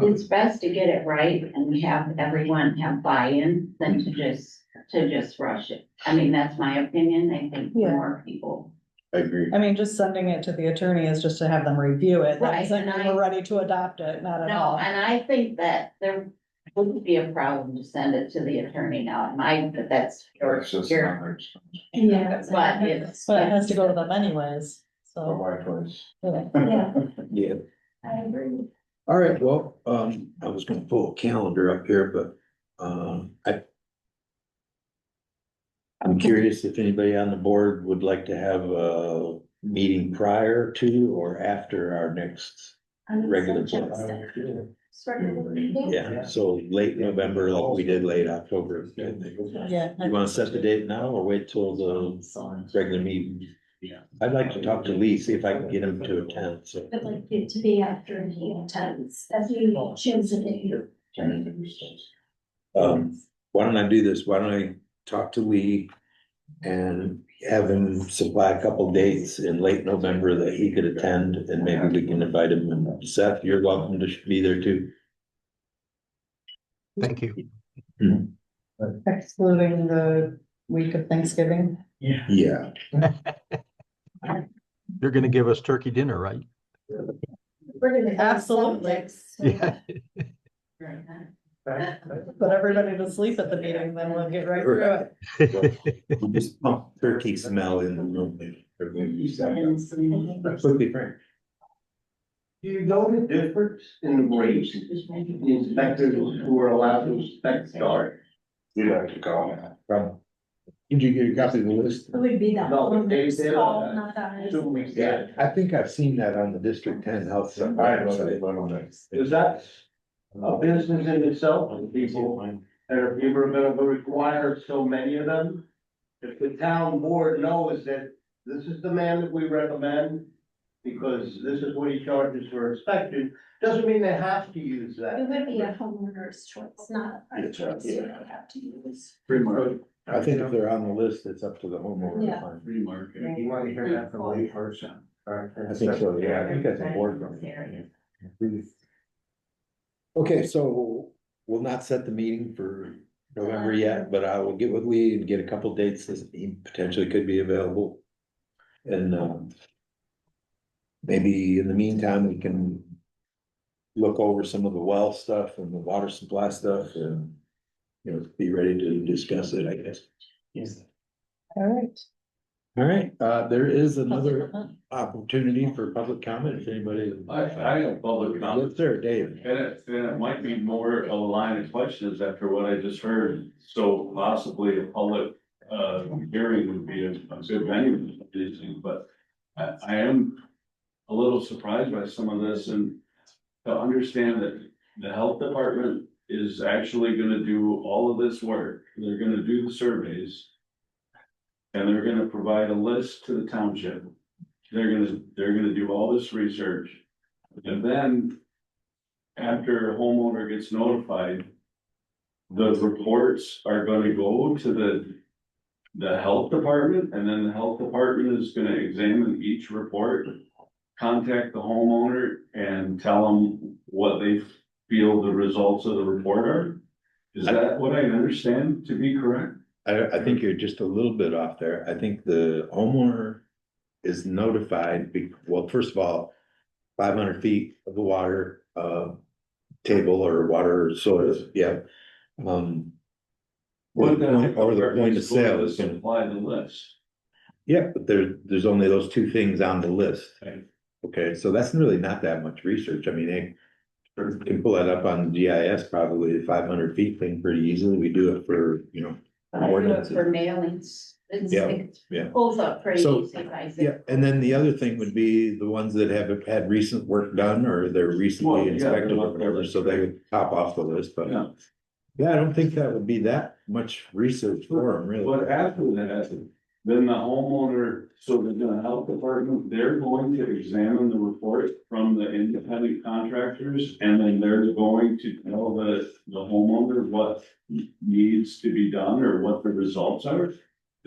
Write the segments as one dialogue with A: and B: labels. A: It's best to get it right and have everyone have buy-in than to just, to just rush it. I mean, that's my opinion. I think
B: Yeah.
A: more people.
C: I agree.
B: I mean, just sending it to the attorney is just to have them review
A: Right,
B: it. That doesn't
A: and
B: mean
A: I-
B: we're ready to adopt it, not at
A: No,
B: all.
A: and I think that there wouldn't be a problem to send it to the attorney now. It might, but that's your,
C: It's just
A: your-
C: not much.
D: Yeah.
A: but it's.
B: But it has to go to them anyways,
C: But
B: so.
C: why twice?
B: yeah.
D: Yeah,
E: Yeah,
D: I agree.
E: all right, well, um, I was gonna pull a calendar up here, but, um, I. I'm curious if anybody on the board would like to have a meeting prior to or after our next, Regular board. yeah, so late November, like we did late October. You
B: Yeah.
E: wanna set the date now or wait till the regular meeting?
C: Yeah.
E: I'd like to talk to Lee, see if I can get him to attend, so.
D: I'd like it to be after he attends, as we choose a day.
E: Um, why don't I do this? Why don't I talk to Lee? And have him supply a couple dates in late November that he could attend and maybe we can invite him and Seth, you're welcome to be there too.
F: Thank you.
B: Excluding the week of Thanksgiving.
E: Yeah.
F: You're gonna give us turkey dinner, right?
D: We're gonna. go
B: Absolutely.
D: subjects.
F: Yeah.
B: Put everybody to sleep at the meeting, then we'll get right through it.
E: Just pump turkey smell in the room.
A: And some-
E: Absolutely, Frank.
G: Do you know the difference in the rates the inspectors who are allowed to inspect start?
C: You'd have to call him.
E: From. Did you get a copy of the list?
D: It would be that.
G: No,
D: one
G: they
D: that's
G: did, uh,
D: called, not ours.
G: Two weeks out.
E: I think I've seen that on the District Ten Health.
C: I don't know, I don't know.
G: Is that a business in itself, and people, that are people are gonna require so many of them? If the town board knows that this is the man that we recommend, because this is what he charges for inspection, doesn't mean they have to use
D: It
G: that.
D: would be a homeowner's choice, not our
C: It's, uh,
D: choice, we
C: yeah.
D: don't have to use.
C: Free market.
E: I think if they're on the list, it's up to the homeowner to
D: Yeah.
E: find.
C: Free market.
G: You wanna hear that from Lee Hirsch?
E: I think so, yeah, I think that's important. Mm-hmm. Okay, so we'll not set the meeting for November yet, but I will get with Lee and get a couple dates that he potentially could be available. And, um. Maybe in the meantime, we can. Look over some of the well stuff and the water supply stuff and. You know, be ready to discuss it, I guess.
G: Yes.
B: All right.
E: All right, uh, there is another opportunity for public comment if anybody.
H: I, I have public
E: Yes,
H: comments,
E: sir, Dave.
H: and it, and it might be more a line of questions after what I just heard, so possibly a public, uh, hearing would be a, a good venue for these things, but I, I am a little surprised by some of this, and to understand that the health department is actually gonna do all of this work, they're gonna do the surveys, and they're gonna provide a list to the township, they're gonna, they're gonna do all this research, and then after a homeowner gets notified, the reports are gonna go to the, the health department, and then the health department is gonna examine each report, contact the homeowner and tell them what they feel the results of the report are. Is that what I understand to be correct?
E: I, I think you're just a little bit off there. I think the homeowner is notified, be- well, first of all, five hundred feet of the water, uh, table or water source, yeah. Um. Or the point, or the point of sale is gonna,
H: Supply the list.
E: yeah, but there, there's only those two things on the list.
H: Right.
E: Okay, so that's really not that much research. I mean, they can pull that up on GIS probably, five hundred feet thing pretty easily. We do it for, you know,
A: I do it For mailings. It's-
E: Yeah,
A: it
E: yeah.
A: Pulls up pretty
E: So,
A: easy by zip
E: Yeah, and then the other thing would be the ones that have had recent work done or they're
H: Well,
E: recently
H: yeah,
E: inspected
H: they're
E: or
H: not-
E: whatever, so they would top off the list, but.
H: Yeah.
E: Yeah, I don't think that would be that much research for them, really.
H: But after that, then the homeowner, so the- the health department, they're going to examine the report from the independent contractors. And then they're going to tell the, the homeowner what needs to be done or what the results are.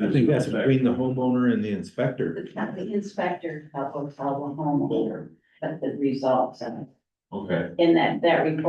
E: I think that's between the homeowner and the inspector.
A: It's not the inspector, help us tell the homeowner, but the results, and,
H: Okay.
A: and that, that report